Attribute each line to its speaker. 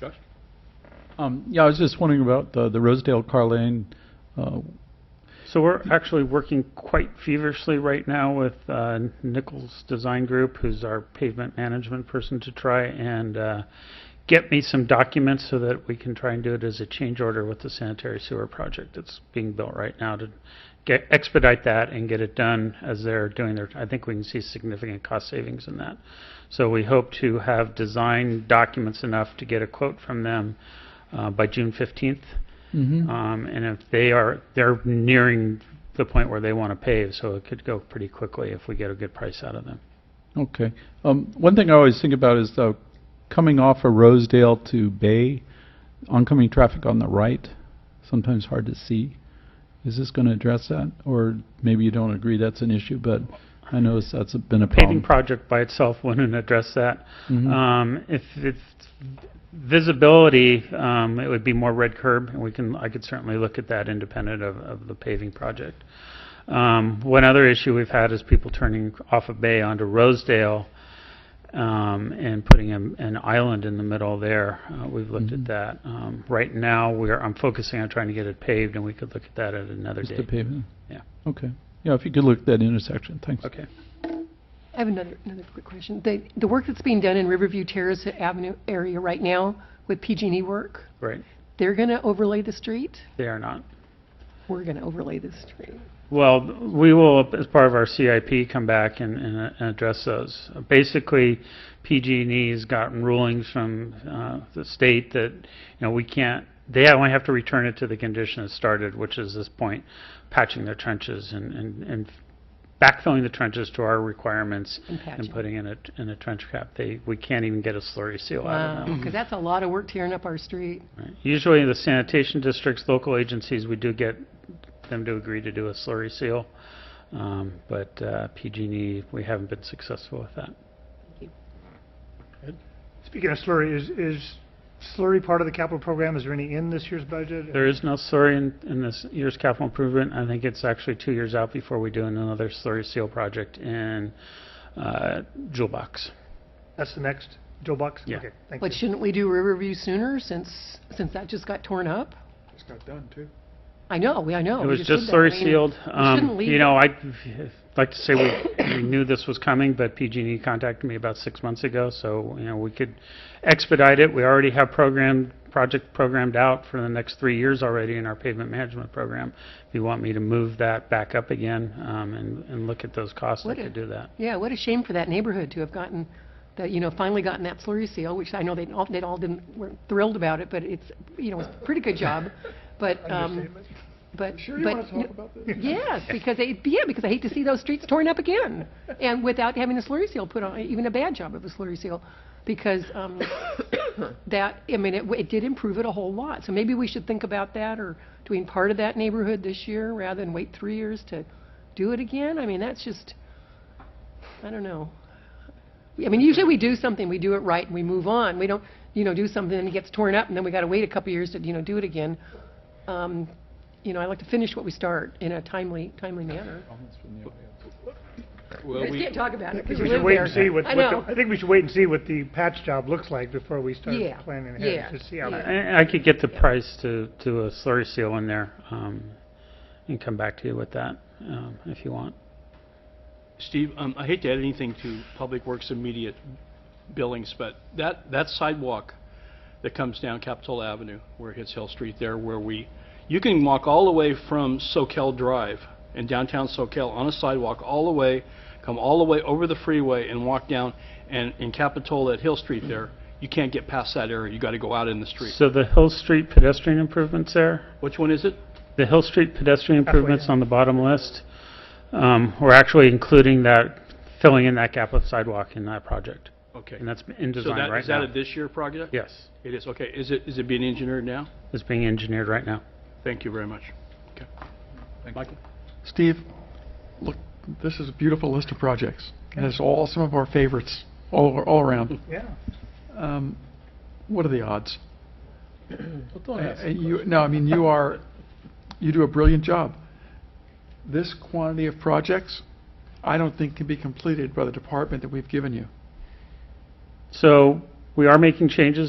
Speaker 1: Josh?
Speaker 2: Um, Yeah, I was just wondering about the the Rosedale car lane. uh,
Speaker 3: So we're actually working quite feverishly right now with uh, Nichols Design Group, who's our pavement management person, to try and uh, get me some documents so that we can try and do it as a change order with the sanitary sewer project that's being built right now to get, expedite that and get it done as they're doing their, I think we can see significant cost savings in that. So we hope to have design documents enough to get a quote from them uh, by June 15th.
Speaker 2: uh,
Speaker 3: Um, and if they are, they're nearing the point where they want to pave, so it could go pretty quickly if we get a good price out of them.
Speaker 2: Okay. Um, One thing I always think about is uh, coming off of Rosedale to Bay, oncoming traffic on the right, sometimes hard to see. Is this going to address that? Or maybe you don't agree that's an issue, but I notice that's a- been a
Speaker 3: Paving
Speaker 2: problem.
Speaker 3: project by itself wouldn't address that.
Speaker 2: Mhm.
Speaker 3: Um, if it's visibility, um, it would be more red curb, and we can, I could certainly look at that independent of, of the paving project. Um, one other issue we've had is people turning off of Bay onto Rosedale, um, and putting an, an island in the middle there. Uh, we've looked
Speaker 2: Mhm.
Speaker 3: at that. Um, right now, we're, I'm focusing on trying to get it paved, and we could look at that at another
Speaker 2: Just the
Speaker 3: date.
Speaker 2: pavement?
Speaker 3: Yeah.
Speaker 2: Okay. Yeah, if you could look at that intersection, thanks.
Speaker 3: Okay.
Speaker 4: I have another, another quick question. The, the work that's being done in Riverview Terrace Avenue area right now with PG&E E work,
Speaker 3: Right.
Speaker 4: they're going to overlay the street?
Speaker 3: They are not.
Speaker 4: We're going to overlay the street.
Speaker 3: Well, we will, as part of our CIP, come back and, and uh, and address those. Basically, PG&E's E gotten rulings from uh, the state that, you know, we can't, they only have to return it to the condition it started, which is this point, patching their trenches and, and and backfilling the trenches to our requirements
Speaker 4: And
Speaker 3: and
Speaker 4: patching.
Speaker 3: putting in a, in a trench cap. They, we can't even get a slurry seal out of them.
Speaker 4: Because that's a lot of work tearing up our street.
Speaker 3: Right. Usually the sanitation districts, local agencies, we do get them to agree to do a slurry seal. Um, But uh, PG&E, we haven't been successful with that.
Speaker 5: Speaking of slurry, is, is slurry part of the capital program? Is there any in this year's budget?
Speaker 3: There is no slurry in, in this year's capital improvement. I think it's actually two years out before we do another slurry seal project in uh, Jewel Box.
Speaker 5: That's the next, Joe Bucks?
Speaker 3: Yeah.
Speaker 5: Okay, thank
Speaker 4: But
Speaker 5: you.
Speaker 4: shouldn't we do Riverview sooner since, since that just got torn up?
Speaker 1: It's got done, too.
Speaker 4: I know, we, I know.
Speaker 3: It
Speaker 4: we
Speaker 3: was
Speaker 4: did
Speaker 3: just
Speaker 4: that. I
Speaker 3: slurry
Speaker 4: mean,
Speaker 3: sealed. Um,
Speaker 4: shouldn't leave
Speaker 3: You know, I'd like to say we, we knew this was coming, but PG&E E contacted me about six months ago, so, you know, we could expedite it. We already have programmed, project programmed out for the next three years already in our pavement management program. If you want me to move that back up again um, and, and look at those costs, I
Speaker 4: Would
Speaker 3: could
Speaker 4: it?
Speaker 3: do that.
Speaker 4: Yeah, what a shame for that neighborhood to have gotten, that, you know, finally gotten that slurry seal, which I know they all, they all didn't, weren't thrilled about it, but it's, you know, it's a pretty good job. But, um,
Speaker 5: Understatement.
Speaker 4: but.
Speaker 1: Sure you
Speaker 4: but-
Speaker 1: want to talk about this?
Speaker 4: Yes, because they, yeah, because I hate to see those streets torn up again, and without having a slurry seal put on, even a bad job of a slurry seal, because um, that, I mean, it, w- it did improve it a whole lot. So maybe we should think about that, or doing part of that neighborhood this year rather than wait three years to do it again. I mean, that's just, I don't know. I mean, usually we do something, we do it right, and we move on. We don't, you know, do something and it gets torn up, and then we got to wait a couple years to, you know, do it again. Um, you know, I like to finish what we start in a timely, timely manner.
Speaker 1: Well,
Speaker 4: We
Speaker 1: we,
Speaker 4: can't talk about it
Speaker 5: I think
Speaker 4: because
Speaker 5: we
Speaker 4: you
Speaker 5: should
Speaker 4: live
Speaker 5: wait and
Speaker 4: there.
Speaker 5: see what,
Speaker 4: I
Speaker 5: what
Speaker 4: know.
Speaker 5: the- I think we should wait and see what the patch job looks like before we start
Speaker 4: Yeah,
Speaker 5: planning
Speaker 4: yeah,
Speaker 5: ahead, to see how
Speaker 4: yeah.
Speaker 5: that
Speaker 3: I I could get the price to, to a slurry seal in there um, and come back to you with that um, if you want.
Speaker 1: Steve, um, I hate to add anything to Public Works immediate billings, but that, that sidewalk that comes down Capitol Avenue, where it hits Hill Street there, where we, you can walk all the way from Soquel Drive in downtown Soquel on a sidewalk, all the way, come all the way over the freeway and walk down, and in Capitol at Hill Street there, you can't get past that area, you gotta go out in the street.
Speaker 3: So the Hill Street pedestrian improvements there,
Speaker 1: Which one is it?
Speaker 3: The Hill Street pedestrian
Speaker 5: Halfway
Speaker 3: improvements
Speaker 5: down.
Speaker 3: on the bottom list, um, we're actually including that, filling in that gap of sidewalk in that project.
Speaker 1: Okay.
Speaker 3: And that's in
Speaker 1: So
Speaker 3: design
Speaker 1: that,
Speaker 3: right
Speaker 1: is that a
Speaker 3: now.
Speaker 1: this year project?
Speaker 3: Yes,
Speaker 1: It is, okay. Is it, is it being engineered now?
Speaker 3: it's being engineered right now.
Speaker 1: Thank you very much. Okay. Michael?
Speaker 6: Steve, look, this is a beautiful list of projects, and it's all some of our favorites, all, all around.
Speaker 5: Yeah.
Speaker 6: Um, What are the odds? Uh, you- No, I mean, you are, you do a brilliant job. This quantity of projects, I don't think can be completed by the department that we've given you.
Speaker 3: So we are making changes